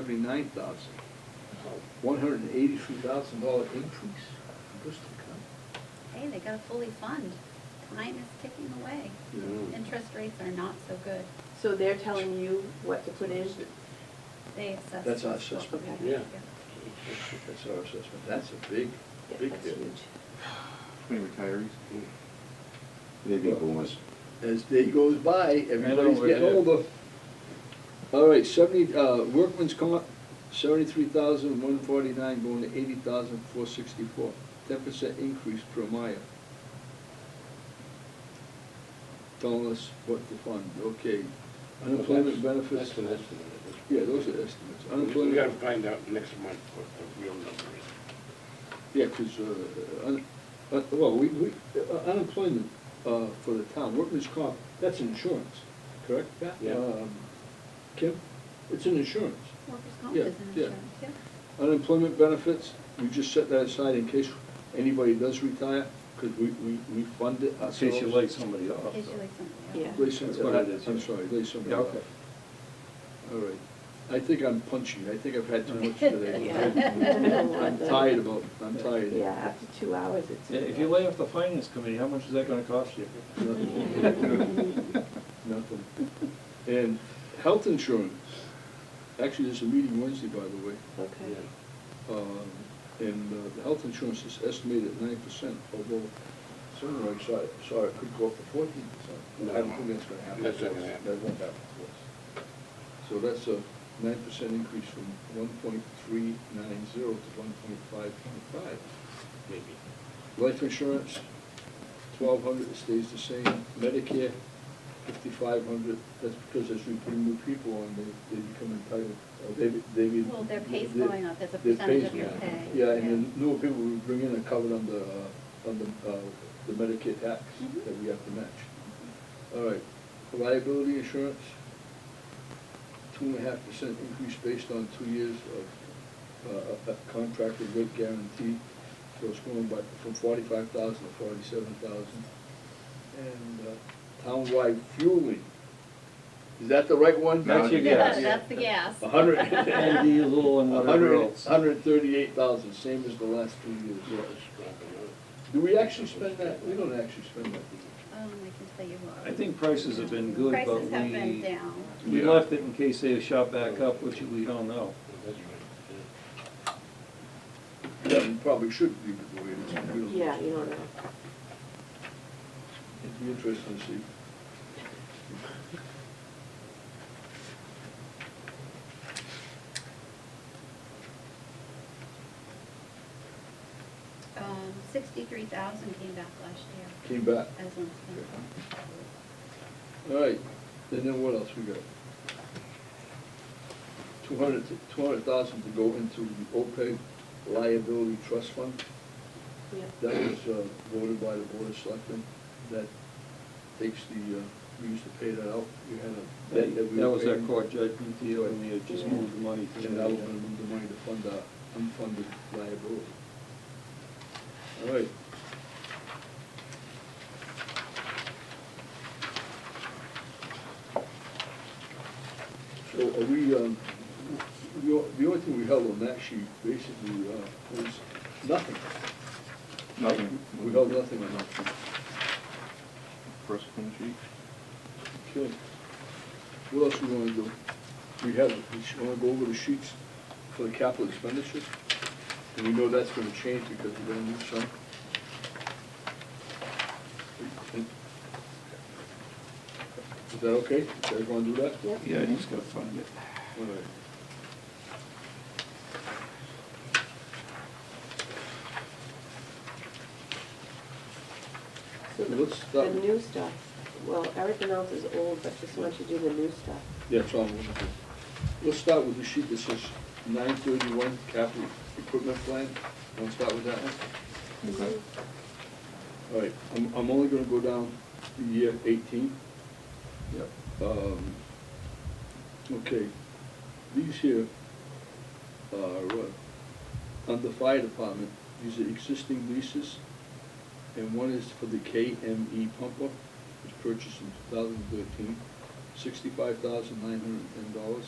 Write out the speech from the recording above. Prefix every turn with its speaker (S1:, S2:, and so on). S1: seventy-nine thousand. One hundred and eighty-three thousand dollar increase in Bristol County.
S2: Hey, they gotta fully fund. Time is ticking away.
S3: Mm-hmm.
S1: Yeah.
S2: Interest rates are not so good.
S4: So they're telling you what to put in?
S2: They assess.
S1: That's our
S2: us what
S1: assessment.
S2: we have.
S5: Yeah.
S1: That's our assessment. That's a big,
S4: Yeah,
S1: big
S4: that's
S1: hit.
S4: huge.
S6: Any retirees? They'd be boomers.
S1: As day goes by, everybody's
S3: we're
S1: getting
S3: dead.
S1: older. All right, seventy, uh, workman's comp, seventy-three thousand, one forty-nine, going to eighty thousand, four sixty-four. Ten percent increase per mile. Telling us what to fund, okay. Unemployment benefits.
S5: That's an estimate. at this point.
S1: Yeah, those are estimates.
S5: We gotta
S1: Unemployment,
S5: find out next month what the real number is.
S1: yeah, 'cause, uh, un, uh, well, we, we, uh, unemployment, uh, for the town, workman's comp, that's insurance, correct? Pat?
S5: Yeah.
S1: Um, Kim, it's an insurance.
S2: Workers' comp
S1: Yeah,
S2: is an
S1: yeah.
S2: insurance, yeah.
S1: Unemployment benefits, we just set that aside in case anybody does retire, 'cause we, we, we fund it
S3: In
S1: ourselves.
S3: case you lay somebody off.
S2: In case
S3: so.
S2: you like something else.
S4: Yeah.
S1: Lay some-
S3: That's what it is,
S1: I'm
S3: yeah.
S1: sorry, lay somebody
S3: Yeah,
S1: off.
S3: okay.
S1: All right. I think I'm punchy. I think I've had too much
S4: Yeah.
S1: today. I'm tired about, I'm tired.
S4: Yeah, after two hours, it's.
S3: Yeah, If you lay off the finance committee, how much is that gonna cost you?
S1: Nothing. Nothing. And health insurance, actually, there's a meeting Wednesday, by the way.
S4: Okay.
S1: Um, And uh, the health insurance is estimated at nine percent, although sooner I saw, saw it could go up to fourteen percent. I don't think that's gonna happen.
S5: That's not gonna happen.
S1: That won't happen to us. So that's a nine percent increase from one point three nine zero to one point five point five.
S5: Maybe.
S1: Life insurance, twelve hundred, it stays the same. Medicare, fifty-five hundred, that's because as we put new people on, they, they become entitled, or they, they. be-
S2: Well, their pay's
S1: they-
S2: going up as a
S1: their
S2: percentage
S1: pay's
S2: of your
S1: going up.
S2: pay,
S1: Yeah, and the
S2: yeah.
S1: newer people we bring in are covered under, uh, under, uh, the Medicare tax
S2: Mhm.
S1: that we have to match. All right, liability insurance, two and a half percent increase based on two years of, uh, uh, contracted rate guarantee. So it's going by, from forty-five thousand to forty-seven thousand. And, uh, townwide fueling, is that the right one?
S6: No, That's your
S3: gas.
S2: That's the gas. Um,
S1: A hundred.
S3: And the little and whatever else.
S1: Hundred thirty-eight thousand, same as the last two
S5: Yeah,
S1: years.
S5: it's dropping out.
S1: Do we actually spend that? We don't actually spend that. do we?
S2: Um, I can tell you what.
S3: I think prices have been good, but
S2: Prices have been
S3: we-
S2: down.
S3: We
S6: Yeah.
S3: left it in case they shot back up, which we don't know.
S5: That's right.
S1: Yeah, we probably should leave it the way it is. We don't-
S4: Yeah, you don't know.
S1: It'd be interesting to see.
S2: Um, sixty-three thousand came back last year
S1: Came back.
S2: as unspent.
S1: All right, and then what else we got? Two hundred, two hundred thousand to go into the OPEB liability trust fund.
S4: Yeah.
S1: That was uh, voted by the Board of Selectmen, that takes the, uh, we used to pay that out, we had a.
S3: That
S1: we
S3: that was
S1: paid,
S3: our court judgment deal, and we had just moved the money to
S1: And that was gonna
S3: the
S1: move the money to fund our unfunded liability. All right. So are we, um, the o- the only thing we held on that sheet basically uh, was nothing.
S6: Nothing.
S1: We got nothing on that.
S6: First clean sheet.
S1: Okay. What else we wanna do? We have, we should wanna go over the sheets for the capital expenditures? And we know that's gonna change because we're gonna need some. Is that okay? You guys wanna do that?
S4: Yep.
S6: Yeah, you just gotta find it.
S1: All right.
S4: So
S1: Well,
S4: the-
S1: let's start-
S4: The new stuff, well, everything else is old, but just want you to do the new stuff.
S1: Yeah, it's all wonderful. Let's start with the sheet that says nine thirty-one capital equipment plan. Wanna start with that one?
S6: Okay.
S1: All right, I'm, I'm only gonna go down to year eighteen.
S3: Yep.
S1: Um, okay, these here are, uh, on the fire department, these are existing leases. And one is for the KME pumper, which purchased in 2013, 65910 dollars.